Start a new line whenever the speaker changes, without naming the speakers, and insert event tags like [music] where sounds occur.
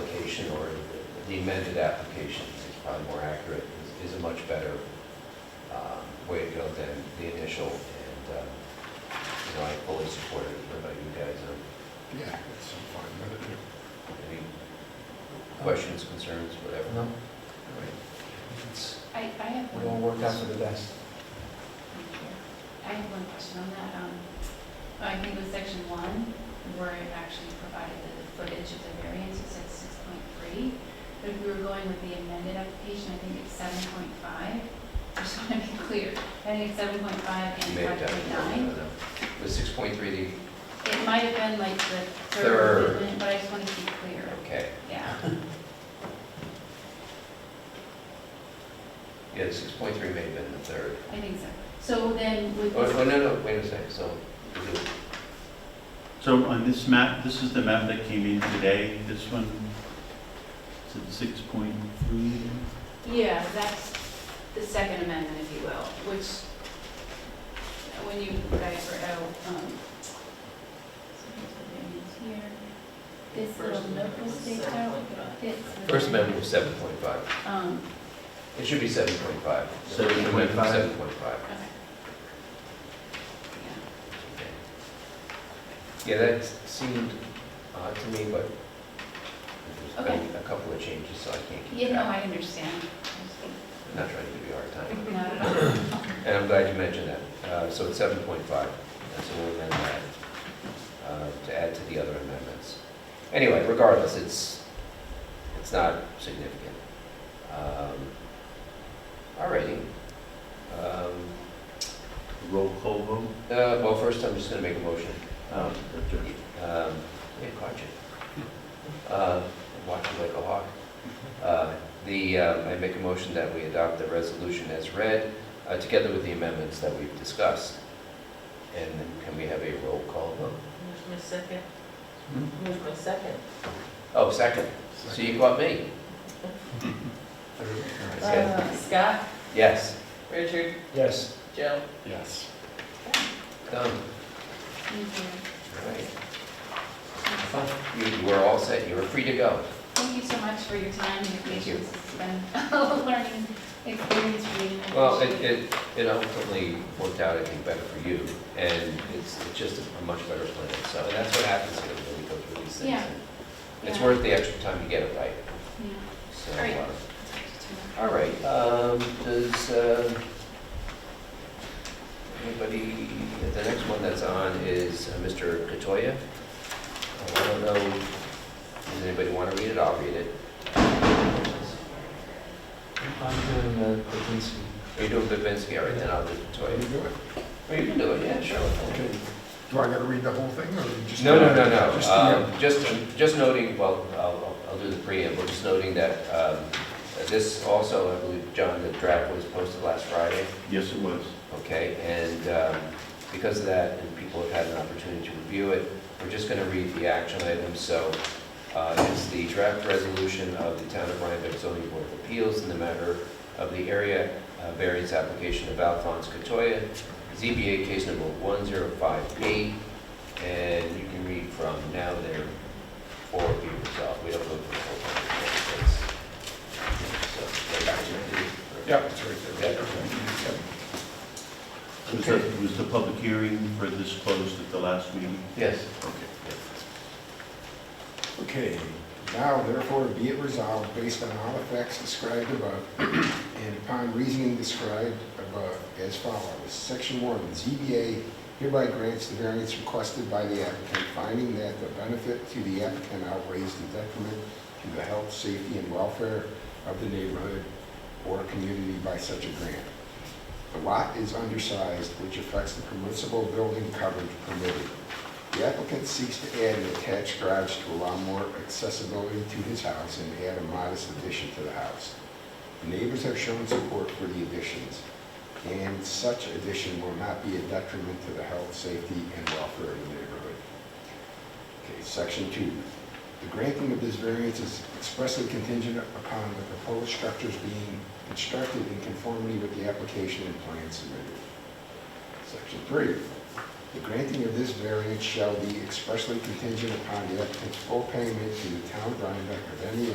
application or the amended application is probably more accurate, is- is a much better um, way to go than the initial. And, um, you know, I fully support it. What about you guys? Um,
Yeah, that's fine, but it-
Any questions, concerns, whatever?
No.
All right. It's-
I, I have
It all
one.
worked out for the best.
I have one question on that. Um, I think with section one, where it actually provided the footage of the variance, it said six point three. But if we were going with the amended application, I think it's seven point five. I just want to be clear. I think it's seven point five
You
and
may
five
have done
point nine.
it. Was 6.3 the,
It might have been like the
Third.
third amendment, but I just want to be clear.
okay.
Yeah.
Yeah, 6.3 may have been the third.
I think so. So then with
Oh, oh,
this,
no, no, wait a second, so, is it-
So on this map, this is the map that came in today, this one, it's at 6.3.
yeah, that's the second amendment, if you will, which, when you guys were out, um, so here's the variance here. This little note was staked out. It's the-
first amendment was 7.5.
Um,
It should be 7.5.
7.5.
7.5.
okay.
Yeah, that seemed odd to me, but there's been a couple of changes, so I can't
Yeah,
keep
you know,
track.
I understand. I
I'm not trying to give you a hard time,
just- Not at all.
and I'm glad you mentioned that. Uh, So it's 7.5, that's what we amend that, uh, to add to the other amendments. Anyway, regardless, it's, it's not significant. Um, All righty. Um,
Roll call vote.
uh, Well, first, I'm just going to make a motion.
Uh, Dr.
Um, Yeah, caught you. Uh, Watching like a hawk. Uh, The, um, I make a motion that we adopt the resolution as read, uh, together with the amendments that we've discussed. And then can we have a roll call vote?
Who's my second?
Hmm?
Who's my second?
Oh, second. So you caught me.
Third,
That's it.
Uh, Scott,
Yes,
Richard,
Yes,
Joe.
Yes.
done.
Thank you.
All right. You were all set. You were free to go.
Thank you so much for your time and your
Thank you.
patience. It's been [laughs] a learning experience for me. I
Well, it,
appreciate
it, it ultimately worked out, I think, better for you, and it's, it's just a much better plan, so, and that's what happens here when we go through these things.
Yeah.
It's
Yeah.
worth the extra time to get it right,
Yeah.
so.
All right.
uh, All right, um, does, uh, anybody, the next one that's on is uh, Mr. Katoya. Uh, I don't know, does anybody want to read it? I'll read it.
I'm doing the Kaminsky.
Are you doing Babinski, all right, then I'll do
Can you
Katoya.
do it?
Or you can do it, yeah, sure. I'll do it.
Do I gotta read the whole thing, or you just?
No, no, no,
Just
no.
the, uh,
Um, Just, just noting, well, I'll, I'll do the preamble, just noting that um, this also, I believe, John, the draft was posted last Friday,
Yes, it was.
okay? And um, because of that, and people have had an opportunity to review it, we're just going to read the action items. So uh, it's the draft resolution of the Town of Rhinebeck zoning board of appeals in the matter of the area uh, variance application of Alphonse Katoya, ZBA case number 105P, and you can read from now there or be resolved. We don't go through the whole thing. it's- So, go back to
Yeah, it's right there.
Yeah.
Yep.
Was the- Was the public hearing for this closed at the last meeting?
the- Yes.
Okay, now therefore be it resolved based on all the facts described above and upon reasoning described above as follows. Section one, ZBA hereby grants the variance requested by the applicant, finding that the benefit to the applicant outweighs the detriment to the health, safety, and welfare of the neighborhood or community by such a grant. The lot is undersized, which affects the permissible building coverage permitted. The applicant seeks to add an attached garage to allow more accessibility to his house and add a modest addition to the house. The Neighbors have shown support for the additions, and such addition will not be a detriment to the health, safety, and welfare of the neighborhood. Okay, section two. The granting of this variance is expressly contingent upon the proposed structures being constructed in conformity with the application and plan submitted. Section three. The granting of this variance shall be expressly contingent upon the applicant's full payment to the town of Rhinebeck of any